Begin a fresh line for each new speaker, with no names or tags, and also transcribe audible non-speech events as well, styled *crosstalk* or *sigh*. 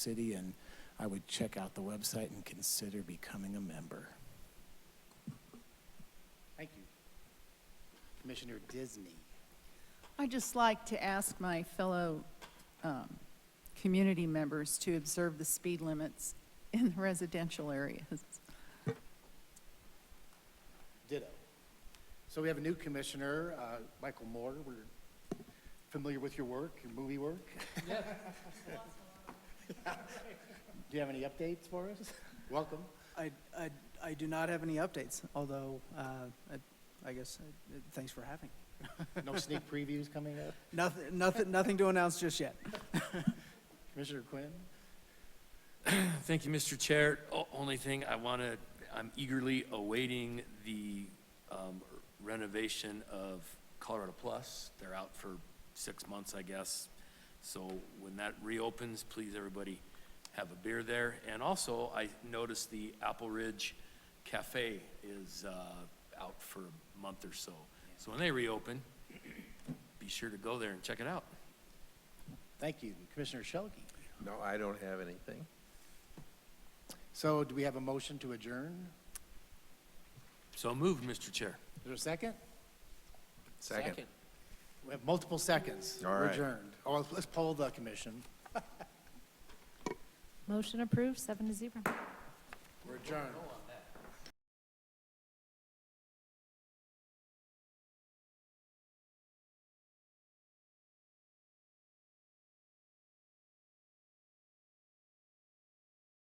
city, and I would check out the website and consider becoming a member.
Thank you. Commissioner Disney.
i just like to ask my fellow um, community members to observe the speed limits in the residential areas.
Ditto. So we have a new commissioner, uh, Michael Moore. We're familiar with your work, your movie work. *laughs* Do you have any updates for us? Welcome.
I, I, I do not have any updates, although, uh, I, I guess, uh, thanks for having.
No sneak previews coming up?
Nothing, nothing, nothing to announce just yet.
Commissioner Quinn?
Thank you, Mr. Chair. O- Only thing I want to, I'm eagerly awaiting the um, renovation of Colorado Plus. They're out for six months, I guess. So when that reopens, please, everybody, have a beer there. And also, I noticed the Apple Ridge Cafe is uh, out for a month or so. So when they reopen, be sure to go there and check it out.
Thank you. Commissioner Shelkey.
No, I don't have anything.
So do we have a motion to adjourn?
So moved, Mr. Chair.
Is there a second?
Second.
We have multiple seconds.
All
We're
right.
adjourned. Oh, let's poll the commission.
Motion approved, seven to zero.
We're adjourned.